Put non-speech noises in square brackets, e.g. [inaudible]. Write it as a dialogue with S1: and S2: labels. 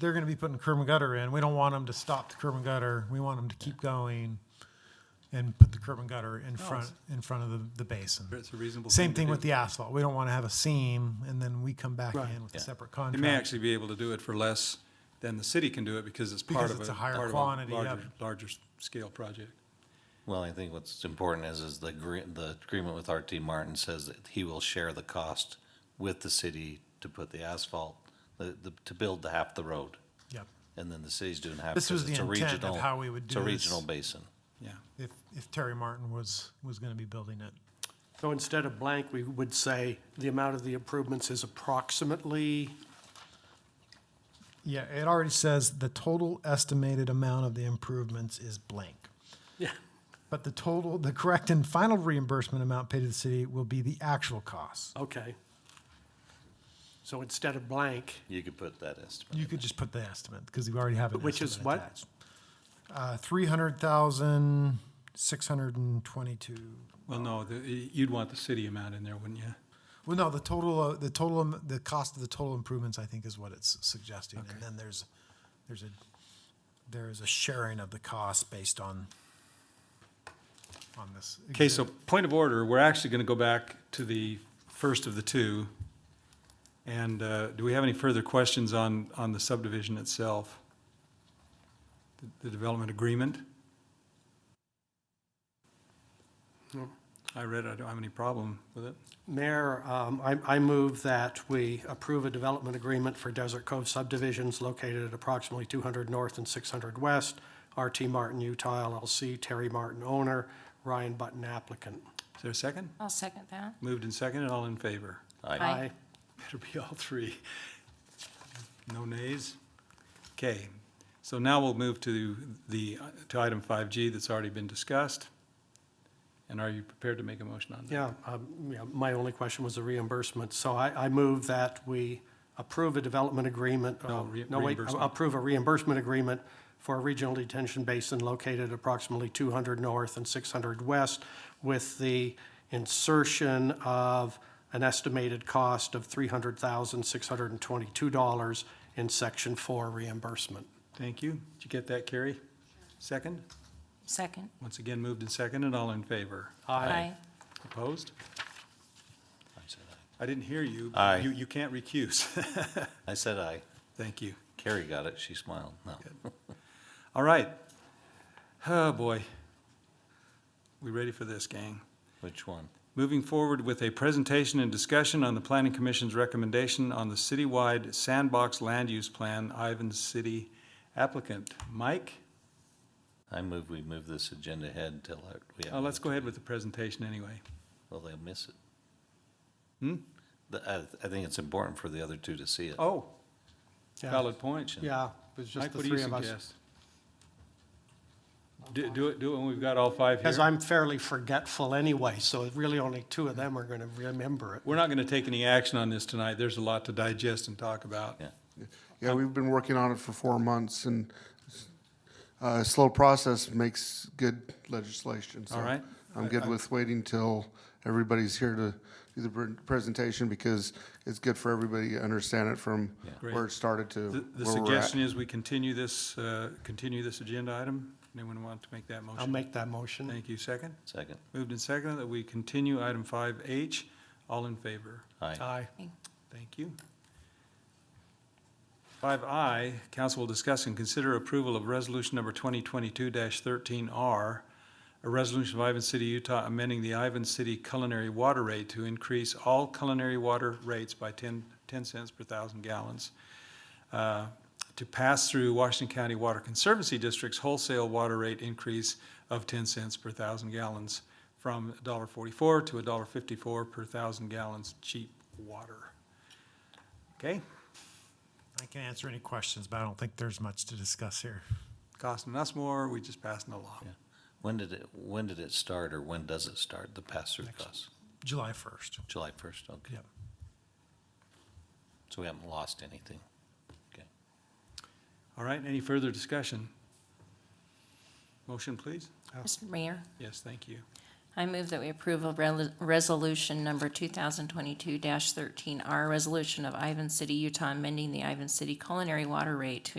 S1: they're going to be putting curb and gutter in. We don't want them to stop the curb and gutter. We want them to keep going and put the curb and gutter in front, in front of the, the basin.
S2: It's a Oh, reasonable
S1: Same
S2: thing to
S1: thing with
S2: do.
S1: the asphalt. We don't want to have a seam and then we come back
S2: Right.
S1: in with a
S3: Yeah.
S1: separate
S2: They may
S1: contract.
S2: actually be able to do it for less than the city can do it because it's part
S1: Because
S2: of a.
S1: it's a higher
S2: part of
S1: quantity, yeah.
S2: larger- Larger s- scale project.
S3: Well, I think what's important is, is the agree, the agreement with RT Martin says that he will share the cost with the city to put the asphalt, the, the, to build the half the road.
S1: Yep.
S3: And then the city's doing half.
S1: This was
S3: 'cause it's
S1: the
S3: a
S1: intent of
S3: regional-
S1: how we would do
S3: It's a
S1: this.
S3: regional basin.
S2: Yeah.
S1: If, if Terry Martin was, was going to be building it.
S4: So instead of blank, we would say the amount of the improvements is approximately,
S1: Yeah, it already says the total estimated amount of the improvements is blank.
S4: yeah,
S1: But the total, the correct and final reimbursement amount paid to the city will be the actual cost.
S4: okay. So instead of blank,
S3: You could put that estimate.
S1: You could just put the estimate, because we already have an
S4: Which is
S1: estimate
S4: what?
S1: attached. Uh, three hundred thousand, six hundred and twenty-two.
S2: Well, no, the- y- you'd want the city amount in there, wouldn't you?
S1: Well, no, the total, uh, the total, am- the cost of the total improvements, I think, is what it's suggesting. And then there's, there's a, there is a sharing of the cost based on, on this.
S2: Okay, so point of order, we're actually going to go back to the first of the two. And uh, do we have any further questions on, on the subdivision itself? The- The development agreement?
S4: No.
S2: I read, it. I don't have any problem with it.
S4: Mayor, um, I, I move that we approve a development agreement for Desert Cove subdivisions located at approximately 200 North and 600 West, RT Martin Utah LLC, Terry Martin owner, Ryan Button applicant.
S2: Is there a second?
S5: I'll second that.
S2: Moved and seconded, all in favor?
S3: I,
S5: Aye.
S2: Better be all three. No nays? Okay, so now we'll move to the, to item 5G that's already been discussed. And are you prepared to make a motion on that?
S4: Yeah, um, yeah, my only question was the reimbursement. So I, I move that we approve a development agreement.
S2: No,
S4: uh,
S2: re-
S4: wait,
S2: reimbursement.
S4: Approve a reimbursement agreement for a regional detention basin located approximately 200 north and 600 west with the insertion of an estimated cost of $300,622 in Section 4 reimbursement.
S2: Thank you. Did you get that, Carrie? Second?
S5: Second.
S2: Once again, moved and seconded, all in favor?
S5: Aye.
S2: Opposed?
S3: I said aye.
S2: I didn't hear you. but
S3: Aye.
S2: You, you can't recuse. [laughs]
S3: I said aye.
S2: Thank you.
S3: Carrie got it. She smiled. No.
S2: All right. Oh, boy. We ready for this, gang?
S3: Which one?
S2: Moving forward with a presentation and discussion on the Planning Commission's recommendation on the citywide sandbox land use plan, Ivan City applicant. Mike?
S3: I move we move this agenda ahead till I- we have.
S2: Oh, let's
S3: another-
S2: go ahead with the presentation anyway.
S3: Well, they'll miss it. The, I, I think it's important for the other two to see it.
S2: Hmm? Oh,
S4: Yeah.
S2: valid point.
S4: Yeah, it's just
S2: Mike,
S4: the
S2: what do you
S4: three of us.
S2: suggest? Do, do it, do it when we've got all five
S4: Because
S2: here.
S4: I'm fairly forgetful anyway, so really only two of them are going to remember it.
S2: We're not gonna take any action on this tonight. There's a lot to digest and talk about.
S3: Yeah.
S6: Yeah, we've been working on it for four months, and uh, slow process makes good legislation. so
S2: All right.
S6: I'm good with waiting till everybody's here to do the pre- presentation, because it's good for everybody to understand it from where it started to
S2: The, the
S6: where we're at.
S2: suggestion is we continue this, uh, continue this agenda item. Anyone want to make that
S4: I'll
S2: motion?
S4: make that motion.
S2: Oh, Thank you. Second?
S3: Second.
S2: Moved and seconded that we continue item five H. All in favor?
S3: Aye.
S4: Aye.
S2: Thank you. Five I, council will discuss and consider approval of resolution number twenty twenty-two thirteen R, a resolution of Ivan City, Utah, amending the Ivan City culinary water rate to increase all culinary water rates by 10 10 cents per thousand gallons uh, to pass through Washington County Water Conservancy District's wholesale water rate increase of ten cents per thousand gallons from $1.44 to $1.54 per thousand gallons cheap water. Okay,
S1: I can answer any questions, but I don't think there's much to discuss here.
S2: costing us more, we just passing it along.
S3: When did it, when did it start or when does it start, the pass-through costs?
S1: July first.
S3: July first, okay.
S1: Yep.
S3: So we haven't lost anything. Okay.
S2: All right, any further discussion? Motion, please?
S5: Mr. Mayor,
S2: Yes, thank you.
S5: I move that we approve of rel- resolution number 2022-13R, resolution of Ivan City, Utah, amending the Ivan City culinary water rate to